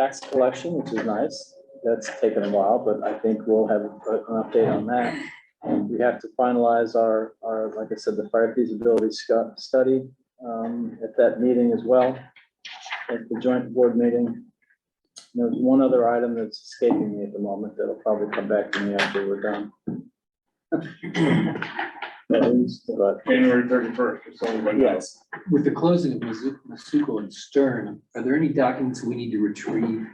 tax collection, which is nice. That's taken a while, but I think we'll have a- an update on that. And we have to finalize our, our, like I said, the fire feasibility scu- study um, at that meeting as well, at the joint board meeting. There's one other item that's escaping me at the moment that'll probably come back to me after we're done. At least, but, January thirty-first, it's only one day. yes, With the closing of Mizu- Masuko and Stern, are there any documents we need to retrieve?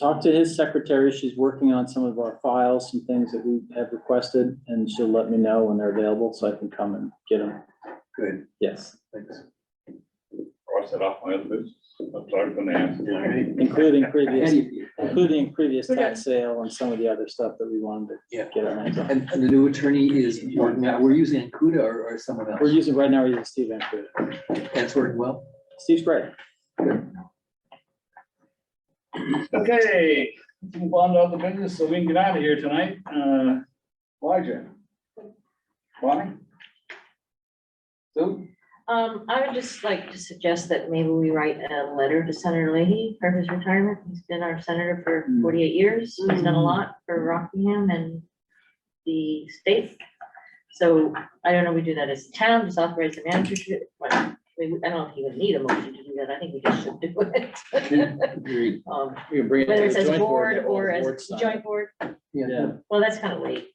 talk to his secretary. She's working on some of our files, some things that we have requested, and she'll let me know when they're available so I can come and get them. Good, Yes, thanks. cross it off my other business. I'm sorry for the answer. All right. including previous, Ahead of you. including previous tax sale and some of the other stuff that we wanted to Yeah. get our hands on. And and the new attorney is working out, we're using Ancuda or or someone We're else, using, right now, we're using Steve Ancuda. that's working well? Steve's great. Okay, let's move on to other business so we can get out of here tonight. Uh, Elijah. Bonnie? Sue? Um, I would just like to suggest that maybe we write a letter to Senator Leahy for his retirement. He's been our senator for Mm. forty-eight years. He's done a lot for Rockingham and the state. So I don't know, we do that as a town, just authorize the manager to, well, we, I don't know if you would need a motion to do that. I think we just should do it. Agreed. Um, We can bring Whether it's as a board or as a joint board, Yeah, well, that's kind of late.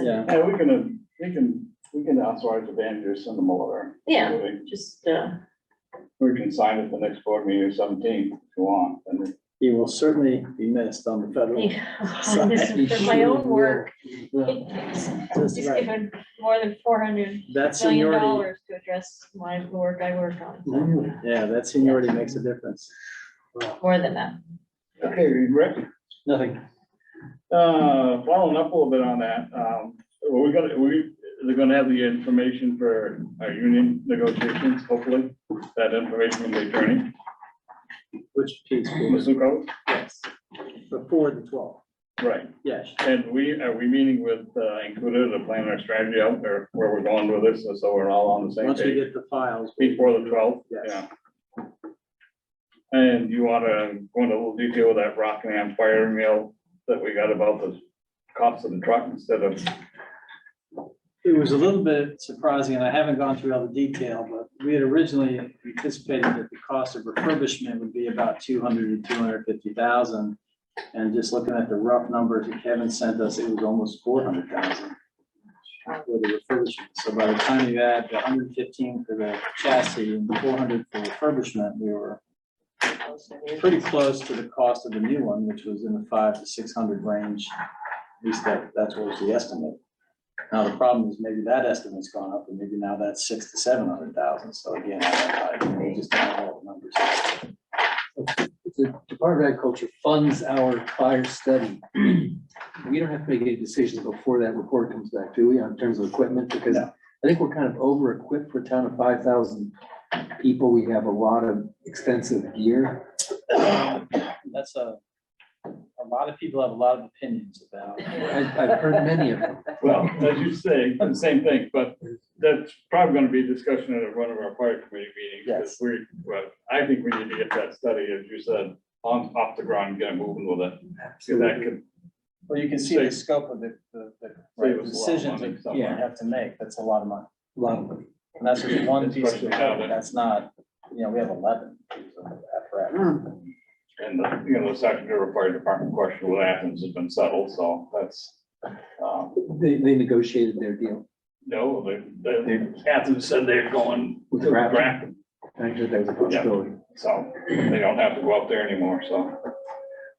yeah. Yeah, we can, uh, we can, we can authorize the manager to send them a letter. Yeah, just, uh, We can sign it the next board meeting or seventeen if you want. And it- He will certainly be missed on the federal. yeah, this is for my own work. He's That's right. given more than four hundred That million seniority, dollars to address my the work I work on, so, Really? yeah, that seniority makes a difference. more than that. Okay, Rick? Nothing. Uh, following up a little bit on that, um, we're gonna, we, they're gonna have the information for our union negotiations, hopefully. That information from the attorney, Which piece? will- Masuko, Yes. Before the twelve, right, yes. and we, are we meeting with, uh, included to plan our strategy out there, where we're going with this, and so we're all on the same Once we page. get the files. we- Before the twelfth, Yes. yeah. And you wanna go into a little detail with that Rockingham fire mail that we got about the cost of the truck instead of It was a little bit surprising, and I haven't gone through all the detail, but we had originally anticipated that the cost of refurbishment would be about two hundred to two hundred fifty thousand. And just looking at the rough numbers that Kevin sent us, it was almost four hundred thousand. For the refurbishment, so by the time you add the hundred fifteen for the chassis and four hundred for refurbishment, we were pretty close to the cost of the new one, which was in the five to six hundred range. At least that, that's what was the estimate. Now, the problem is maybe that estimate's gone up and maybe now that's six to seven hundred thousand. So again, I, I we just don't know the numbers. The Department of Agriculture funds our fire study. We don't have to make any decisions before that report comes back, do we, on terms of equipment? Because No. I think we're kind of over equipped for a town of five thousand people. We have a lot of expensive gear. That's a, a lot of people have a lot of opinions about. I've, I've heard many of them. Well, as you say, the same thing, but that's probably gonna be a discussion at one of our fire committee meetings. 'cause Yes. We, well, I think we need to get that study, as you said, on, off the ground, get moving with it. So that could Well, you can see the scope of the, the, save the us a lot of decisions money that yeah. you somewhere. have to make. That's a lot of money. A lot of them. And that's just one piece of, Especially now that- equipment. that's not, you know, we have eleven pieces of apparatus. And, the, you know, the Secretary of Fire Department question with Athens has been settled, so that's, um, They, they negotiated their deal. no, the, the, Athens said they're going With to Grafton. Grafton, I heard that was a possibility. so they don't have to go up there anymore, so.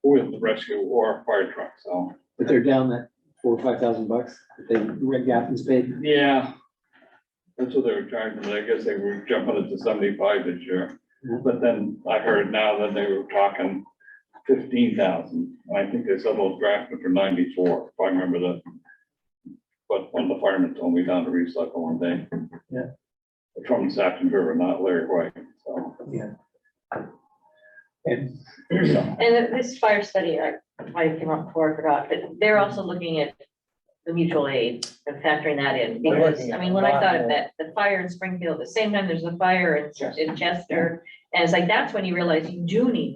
With the rescue or fire truck, so. But they're down that four or five thousand bucks that they, Red Gaffins paid. Yeah. That's what they were charging, but I guess they were jumping it to seventy-five this year, Mhm. but then I heard now that they were talking fifteen thousand, and I think they settled Grafton for ninety-four, if I remember that. But one of the firemen told me down to recycle one day. Yeah. From Saxon River, not Larry White, so. Yeah. And so, And this fire study, I, I came up before, I forgot, but they're also looking at the mutual aid and factoring that in, They're because, looking I at mean, a when I lot thought of more. that, the fire in Springfield, at the same time, there's a fire in, Chester. in Chester, and it's like, that's when you realize you do need